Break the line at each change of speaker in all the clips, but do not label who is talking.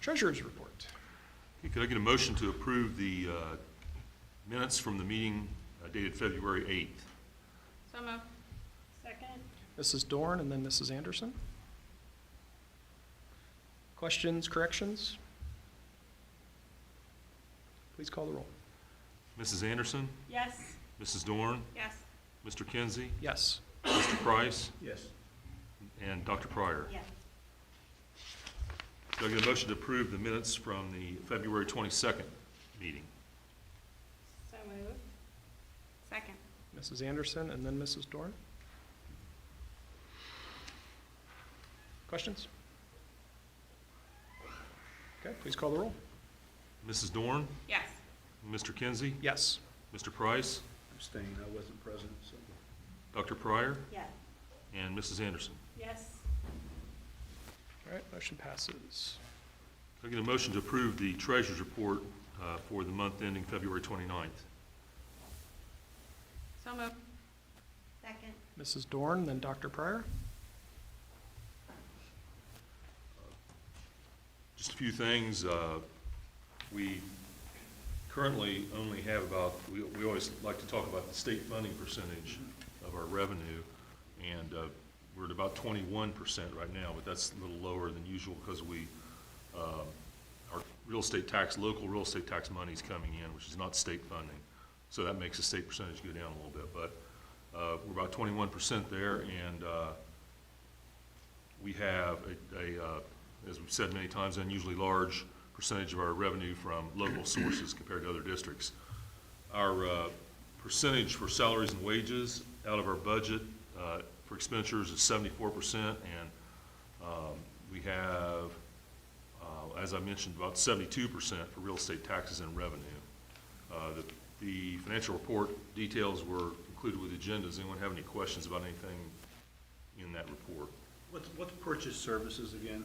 Treasurer's report.
Okay, Could I get a motion to approve the uh, minutes from the meeting uh, dated February 8th?
So moved. Second?
Mrs. Dorn and then Mrs. Anderson. Questions, corrections? Please call the roll.
Mrs. Anderson,
Yes.
Mrs. Dorn,
Yes.
Mr. Kinsey,
Yes.
Mr. Price,
Yes.
and Dr. Pryor.
Yes.
Could I get a motion to approve the minutes from the February 22nd meeting?
So moved. Second?
Mrs. Anderson and then Mrs. Dorn. Questions? Okay, please call the roll.
Mrs. Dorn,
Yes.
Mr. Kinsey,
Yes.
Mr. Price,
Abstain, I wasn't present, so.
Dr. Pryor,
Yes.
and Mrs. Anderson.
Yes.
All right, motion passes.
Could I get a motion to approve the treasurer's report uh, for the month ending February 29th?
So moved. Second?
Mrs. Dorn, then Dr. Pryor.
Just a few things. uh, We currently only have about, we we always like to talk about the state funding percentage of our revenue, and uh, we're at about 21% right now, but that's a little lower than usual because we, um, our real estate tax, local real estate tax money is coming in, which is not state funding. So that makes the state percentage go down a little bit, but uh, we're about 21% there, and uh, we have a, a, uh, as we've said many times, unusually large percentage of our revenue from local sources compared to other districts. Our uh, percentage for salaries and wages out of our budget uh, for expenditures is seventy-four percent, and um, we have, uh, as I mentioned, about seventy-two percent for real estate taxes and revenue. Uh, the- The financial report details were included with the agenda. Does anyone have any questions about anything in that report?
What's, what's purchase services again?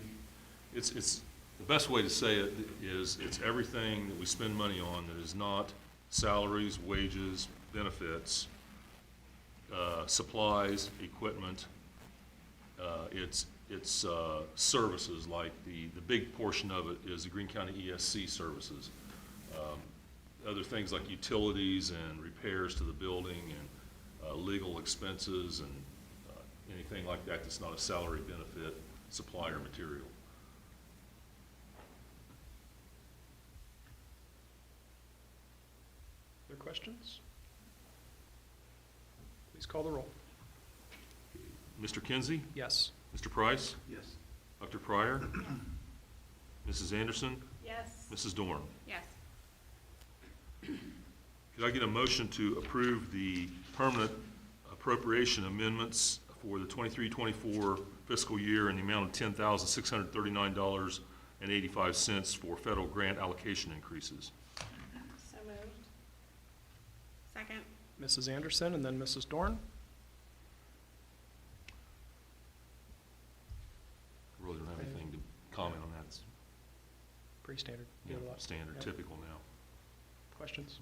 It's, it's, the best way to say it is, it's everything that we spend money on that is not salaries, wages, benefits, uh, supplies, equipment. Uh, It's, it's uh, services, like the, the big portion of it is the Greene County ESC services. Um, Other things like utilities and repairs to the building and uh, legal expenses and uh, anything like that that's not a salary benefit, supply or material.
Other questions? Please call the roll.
Mr. Kinsey,
Yes.
Mr. Price,
Yes.
Dr. Pryor, Mrs. Anderson,
Yes.
Mrs. Dorn.
Yes.
Could I get a motion to approve the permanent appropriation amendments for the 23-24 fiscal year in the amount of $10,639.85 for federal grant allocation increases?
So moved. Second?
Mrs. Anderson and then Mrs. Dorn.
I Really don't have anything to comment on that. It's
Pretty standard.
you
You have a
know,
lot of
standard,
Yep.
typical now.
Questions?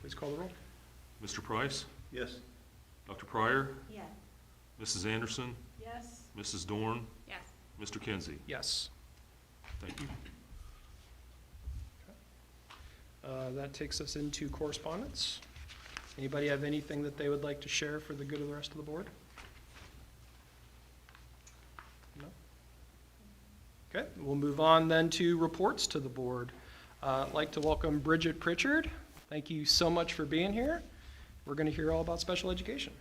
Please call the roll.
Mr. Price,
Yes.
Dr. Pryor,
Yes.
Mrs. Anderson,
Yes.
Mrs. Dorn,
Yes.
Mr. Kinsey.
Yes.
Thank you.
Uh, That takes us into correspondence. Anybody have anything that they would like to share for the good of the rest of the board? No? Okay, we'll move on then to reports to the board. Uh, I'd like to welcome Bridget Pritchard. Thank you so much for being here. We're going to hear all about special education.